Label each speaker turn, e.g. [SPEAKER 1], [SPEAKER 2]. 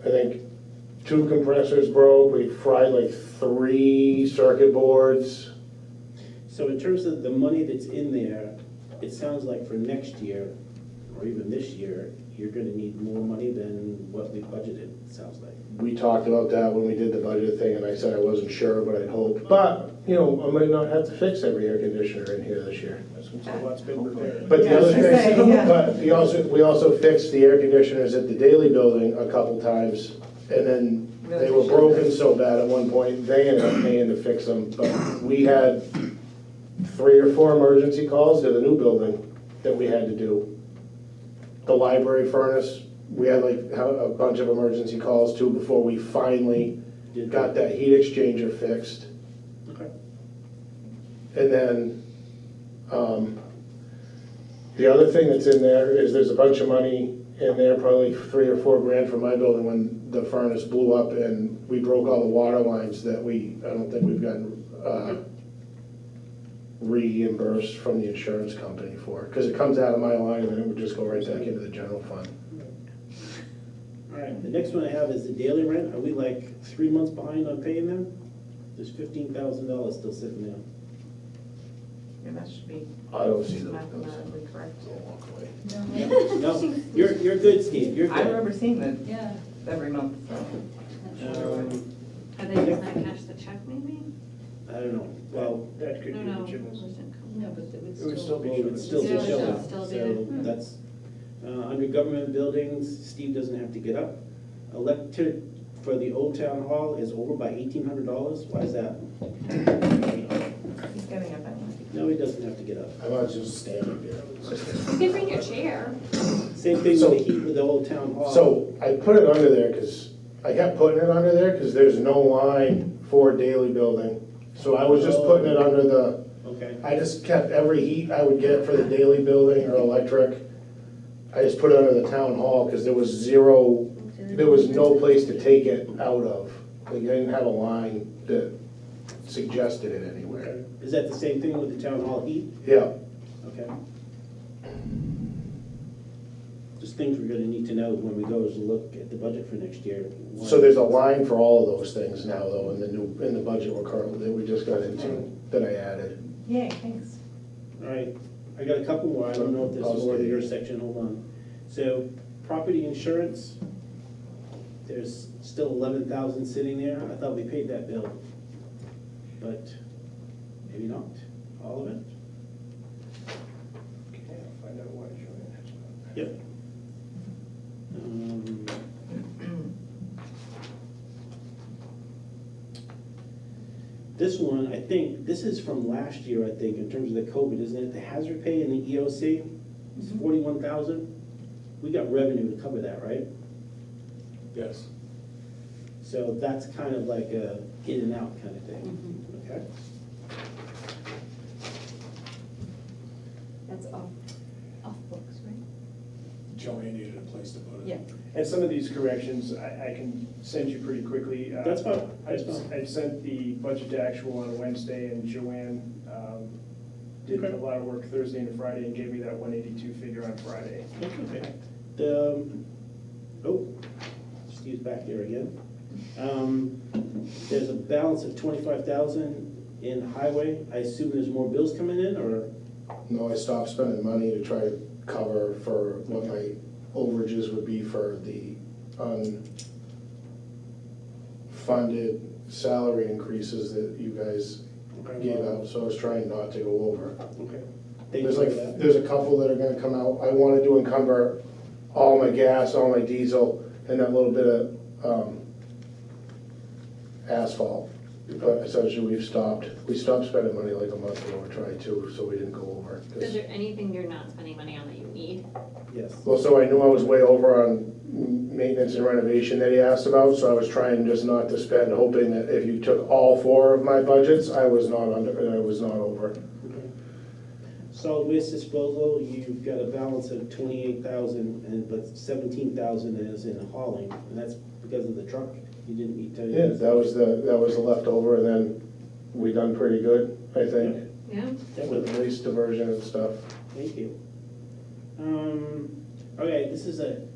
[SPEAKER 1] I think two compressors broke, we fried like three circuit boards.
[SPEAKER 2] So in terms of the money that's in there, it sounds like for next year, or even this year, you're gonna need more money than what we budgeted, it sounds like.
[SPEAKER 1] We talked about that when we did the budget thing, and I said I wasn't sure, but I'd hoped. But, you know, I might not have to fix every air conditioner in here this year.
[SPEAKER 2] So what's been prepared?
[SPEAKER 1] But the
[SPEAKER 3] Yeah, I
[SPEAKER 1] other
[SPEAKER 3] was gonna say,
[SPEAKER 1] thing,
[SPEAKER 3] yeah.
[SPEAKER 1] but we also, we also fixed the air conditioners at the Daily Building a couple times, and then they were broken so bad at one point, they ended up paying to fix them, but we had three or four emergency calls to the new building that we had to do. The library furnace, we had like how- a bunch of emergency calls too before we finally
[SPEAKER 2] Did-
[SPEAKER 1] got that heat exchanger fixed.
[SPEAKER 2] Okay.
[SPEAKER 1] And then, um, the other thing that's in there is there's a bunch of money in there, probably three or four grand from my building when the furnace blew up and we broke all the water lines that we, I don't think we've gotten, uh, reimbursed from the insurance company for, because it comes out of my line and then it would just go right back into the general fund.
[SPEAKER 2] All right, the next one I have is the daily rent, are we like three months behind on paying them? There's fifteen thousand dollars still sitting there.
[SPEAKER 3] Yeah, that should be
[SPEAKER 1] I don't see those.
[SPEAKER 3] mathematically correct.
[SPEAKER 1] I'll walk away.
[SPEAKER 2] No, you're, you're good, Steve, you're
[SPEAKER 3] I
[SPEAKER 2] good.
[SPEAKER 3] remember seeing that
[SPEAKER 4] Yeah.
[SPEAKER 3] every month, so.
[SPEAKER 2] Um,
[SPEAKER 5] Are they just not cash the check maybe?
[SPEAKER 2] I don't know, well,
[SPEAKER 6] That could be
[SPEAKER 5] No, no.
[SPEAKER 6] the gym's.
[SPEAKER 4] No, but it would
[SPEAKER 6] It would
[SPEAKER 4] still.
[SPEAKER 6] still be
[SPEAKER 2] well, it's still
[SPEAKER 4] Yeah,
[SPEAKER 2] just
[SPEAKER 4] it'll
[SPEAKER 2] showing,
[SPEAKER 5] still be
[SPEAKER 2] so
[SPEAKER 5] there. Hmm.
[SPEAKER 2] that's, uh, under government buildings, Steve doesn't have to get up. Electric for the old town hall is over by eighteen hundred dollars, why is that?
[SPEAKER 3] He's getting up anyway.
[SPEAKER 2] No, he doesn't have to get up.
[SPEAKER 1] I might just stand up here.
[SPEAKER 5] You can bring your chair.
[SPEAKER 2] Same thing with
[SPEAKER 1] So-
[SPEAKER 2] the heat with the old town hall.
[SPEAKER 1] So I put it under there because, I kept putting it under there because there's no line for daily building. So I was just putting it under the,
[SPEAKER 2] Okay,
[SPEAKER 1] I just kept every heat I would get for the daily building or electric. I just put it under the town hall because there was zero, there was no place to take it out of. Like, I didn't have a line that suggested it anywhere.
[SPEAKER 2] okay. Is that the same thing with the town hall heat?
[SPEAKER 1] Yeah,
[SPEAKER 2] Okay. Just things we're gonna need to know when we go is look at the budget for next year.
[SPEAKER 1] so there's a line for all of those things now though in the new, in the budget we're currently, that we just got into, that I added.
[SPEAKER 3] Yay, thanks.
[SPEAKER 2] All right, I got a couple more, I don't know if this is more to your section, hold on. So, property insurance, there's still eleven thousand sitting there, I thought we paid that bill. But maybe not, all of it?
[SPEAKER 6] Okay, I'll find out why it's showing that.
[SPEAKER 2] Yep. Um, This one, I think, this is from last year, I think, in terms of the COVID, isn't it? The hazard pay and the E EOC, it's forty-one thousand. We got revenue to cover that, right?
[SPEAKER 1] Yes.
[SPEAKER 2] So that's kind of like a in and out kind of thing, okay?
[SPEAKER 4] That's off, off books, right?
[SPEAKER 6] Joanne needed a place to put
[SPEAKER 4] Yeah.
[SPEAKER 6] And some of these corrections, I, I can send you pretty quickly. Uh,
[SPEAKER 2] That's fine,
[SPEAKER 6] I,
[SPEAKER 2] that's fine.
[SPEAKER 6] I sent the budget to actual on Wednesday, and Joanne, um, did
[SPEAKER 2] Okay.
[SPEAKER 6] a lot of work Thursday and Friday, and gave me that one eighty-two figure on Friday.
[SPEAKER 2] That's okay. The, um, oh, Steve's back there again. Um, There's a balance of twenty-five thousand in highway. I assume there's more bills coming in, or,
[SPEAKER 1] No, I stopped spending money to try to cover for what my overages would be for the unfunded salary increases that you guys gave out, so I was trying not to go over.
[SPEAKER 2] okay. Thank you
[SPEAKER 1] There's
[SPEAKER 2] for
[SPEAKER 1] like,
[SPEAKER 2] that.
[SPEAKER 1] there's a couple that are gonna come out, I wanted to encumber all my gas, all my diesel, and that little bit of, um, asphalt. But essentially, we've stopped, we stopped spending money like a month ago, we tried to, so we didn't go over. 'cause-
[SPEAKER 5] Is there anything you're not spending money on that you need?
[SPEAKER 2] Yes.
[SPEAKER 1] Well, so I knew I was way over on maintenance and renovation that he asked about, so I was trying just not to spend, hoping that if you took all four of my budgets, I was not under, I was not over.
[SPEAKER 2] Okay. Solid waste disposal, you've got a balance of twenty-eight thousand, and, but seventeen thousand is in hauling, and that's because of the truck. You didn't uh, need to.
[SPEAKER 1] Yeah, that was the, that was the leftover, and then we done pretty good, I think,
[SPEAKER 5] Yeah?
[SPEAKER 2] That was-
[SPEAKER 1] with waste diversion and stuff.
[SPEAKER 2] Thank you. Um, okay, this is a